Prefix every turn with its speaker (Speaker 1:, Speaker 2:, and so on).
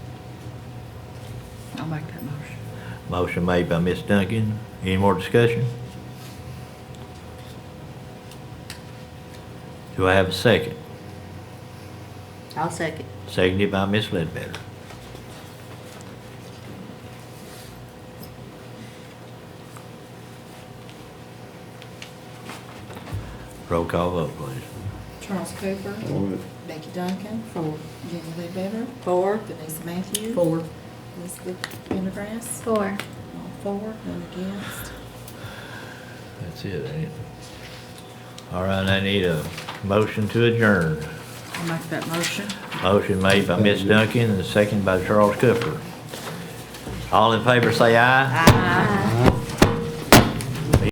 Speaker 1: make that motion.
Speaker 2: Motion made by Ms. Duncan. Any more discussion? Do I have a second?
Speaker 3: I'll second.
Speaker 2: Seconded by Ms. Ledbetter. Roll call vote, please.
Speaker 4: Charles Cooper.
Speaker 5: Four.
Speaker 4: Becky Duncan.
Speaker 3: Four.
Speaker 4: Jenny Lee Better.
Speaker 3: Four.
Speaker 4: Vanessa Matthew.
Speaker 1: Four.
Speaker 4: Elizabeth Pendergrass.
Speaker 6: Four.
Speaker 4: All four, none against.
Speaker 2: That's it, ain't it? All right, I need a motion to adjourn.
Speaker 1: I'll make that motion.
Speaker 2: Motion made by Ms. Duncan and seconded by Charles Cooper. All in favor, say aye.
Speaker 6: Aye.